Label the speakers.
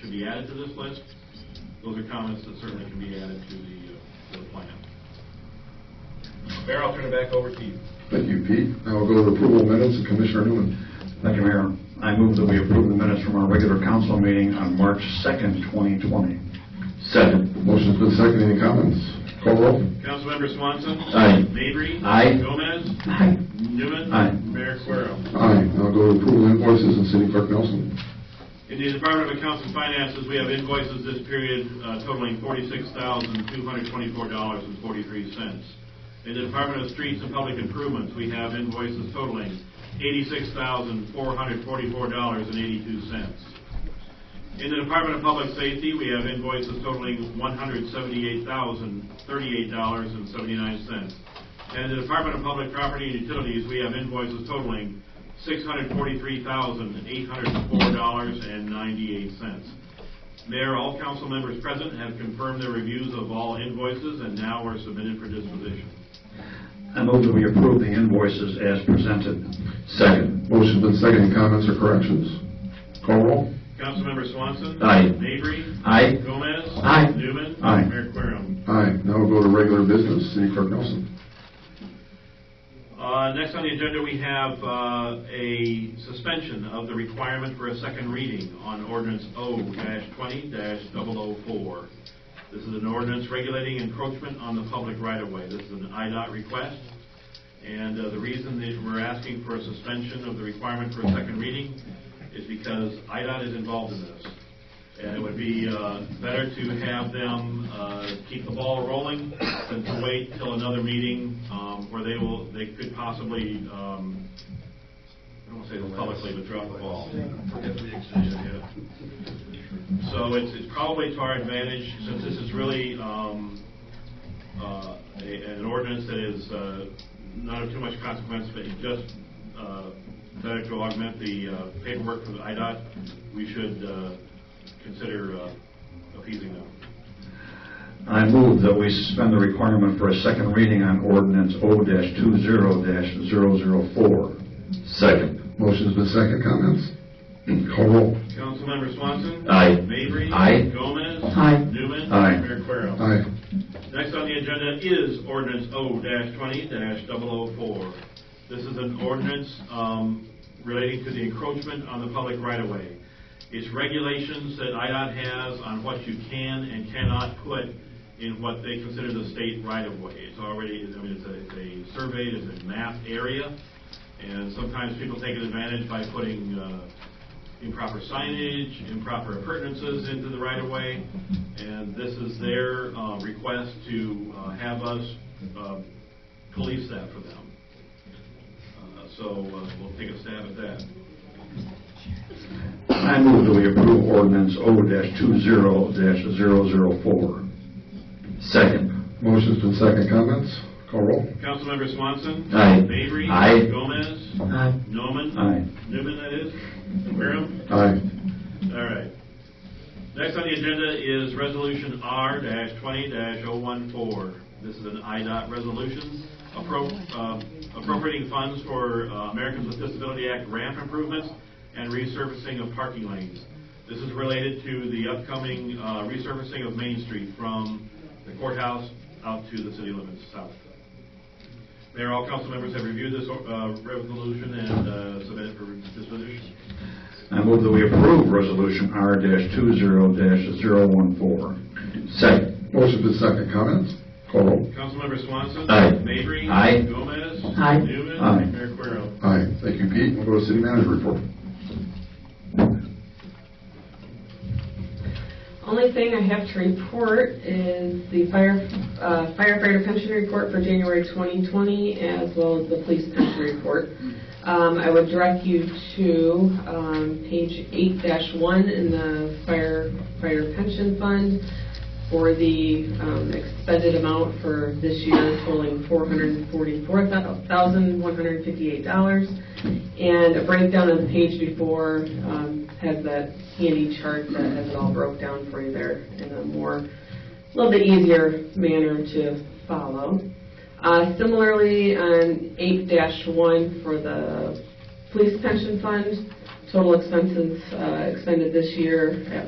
Speaker 1: should be added to this list. Those are comments that certainly can be added to the, uh, to the plan. Mayor, I'll turn it back over to you.
Speaker 2: Thank you, Pete. Now we'll go to approval of minutes, and Commissioner Newman.
Speaker 3: Thank you, Mayor. I move that we approve the minutes from our regular council meeting on March 2nd, 2020.
Speaker 4: Second.
Speaker 2: Motion's been seconded, any comments? Call roll.
Speaker 1: Councilmember Swanson.
Speaker 4: Aye.
Speaker 1: Mavry.
Speaker 4: Aye.
Speaker 1: Gomez.
Speaker 4: Aye.
Speaker 1: Newman.
Speaker 3: Aye.
Speaker 1: Mayor Querem.
Speaker 2: Aye. Now go to approval of invoices, and City Clerk Nelson.
Speaker 1: In the Department of Accounts and Finances, we have invoices this period uh, totaling $46,224.43. In the Department of Streets and Public Improvements, we have invoices totaling $86,444.82. In the Department of Public Safety, we have invoices totaling $178,038.79. And in the Department of Public Property and Utilities, we have invoices totaling $643,804.98. Mayor, all council members present have confirmed their reviews of all invoices and now are submitted for disposition.
Speaker 3: I move that we approve the invoices as presented.
Speaker 4: Second.
Speaker 2: Motion's been seconded, any comments or corrections? Call roll.
Speaker 1: Councilmember Swanson.
Speaker 4: Aye.
Speaker 1: Mavry.
Speaker 4: Aye.
Speaker 1: Gomez.
Speaker 4: Aye.
Speaker 1: Newman.
Speaker 3: Aye.
Speaker 1: Mayor Querem.
Speaker 2: Aye. Now we'll go to regular business, City Clerk Nelson.
Speaker 1: Uh, Next on the agenda, we have uh, a suspension of the requirement for a second reading on ordinance O-20-004. This is an ordinance regulating encroachment on the public right-of-way. This is an IDOT request, and uh, the reason that we're asking for a suspension of the requirement for a second reading is because IDOT is involved in this. And it would be uh, better to have them uh, keep the ball rolling than to wait till another meeting um, where they will, they could possibly, um, I don't want to say publicly, but drop the ball. Yeah. So it's it's probably to our advantage, since this is really um, uh, a- an ordinance that is uh, not of too much consequence, but just uh, better to augment the uh, paperwork from IDOT, we should uh, consider uh, appeasing them.
Speaker 3: I move that we suspend the requirement for a second reading on ordinance O-20-004.
Speaker 4: Second.
Speaker 2: Motion's been seconded, comments? Call roll.
Speaker 1: Councilmember Swanson.
Speaker 4: Aye.
Speaker 1: Mavry.
Speaker 4: Aye.
Speaker 1: Gomez.
Speaker 4: Aye.
Speaker 1: Newman.
Speaker 3: Aye.
Speaker 1: Mayor Querem.
Speaker 2: Aye.
Speaker 1: Next on the agenda is ordinance O-20-004. This is an ordinance um, relating to the encroachment on the public right-of-way. It's regulations that IDOT has on what you can and cannot put in what they consider the state right-of-way. It's already, I mean, it's a- it's a surveyed, it's a mapped area, and sometimes people take advantage by putting uh, improper signage, improper appurtenances into the right-of-way, and this is their uh, request to uh, have us uh, police that for them. Uh, So uh, we'll take a stab at that.
Speaker 3: I move that we approve ordinance O-20-004.
Speaker 4: Second.
Speaker 2: Motion's been seconded, comments? Call roll.
Speaker 1: Councilmember Swanson.
Speaker 4: Aye.
Speaker 1: Mavry.
Speaker 4: Aye.
Speaker 1: Gomez.
Speaker 4: Aye.
Speaker 1: Norman.
Speaker 3: Aye.
Speaker 1: Newman, that is. Wareham.
Speaker 2: Aye.
Speaker 1: All right. Next on the agenda is Resolution R-20-014. This is an IDOT resolution appro- uh, appropriating funds for uh, Americans with Disability Act ramp improvements and resurfacing of parking lanes. This is related to the upcoming uh, resurfacing of Main Street from the courthouse out to the city limits south. Mayor, all council members have reviewed this uh, resolution and uh, submitted for disposition.
Speaker 3: I move that we approve resolution R-20-004.
Speaker 4: Second.
Speaker 2: Motion's been seconded, comments? Call roll.
Speaker 1: Councilmember Swanson.
Speaker 4: Aye.
Speaker 1: Mavry.
Speaker 4: Aye.
Speaker 1: Gomez.
Speaker 4: Aye.
Speaker 1: Newman.
Speaker 3: Aye.
Speaker 1: Mayor Querem.
Speaker 2: Aye. Thank you, Pete. We'll go to City Manager report.
Speaker 5: Only thing I have to report is the fire uh, firefighter pension report for January 2020, as well as the police pension report. Um, I would direct you to um, page 8-1 in the firefighter pension fund for the um, expended amount for this year totaling $444,158. And a breakdown of the page before um, has that handy chart that has it all broke down for you there in a more, a little bit easier manner to follow. Uh, Similarly, on 8-1 for the police pension fund, total expenses uh, expended this year at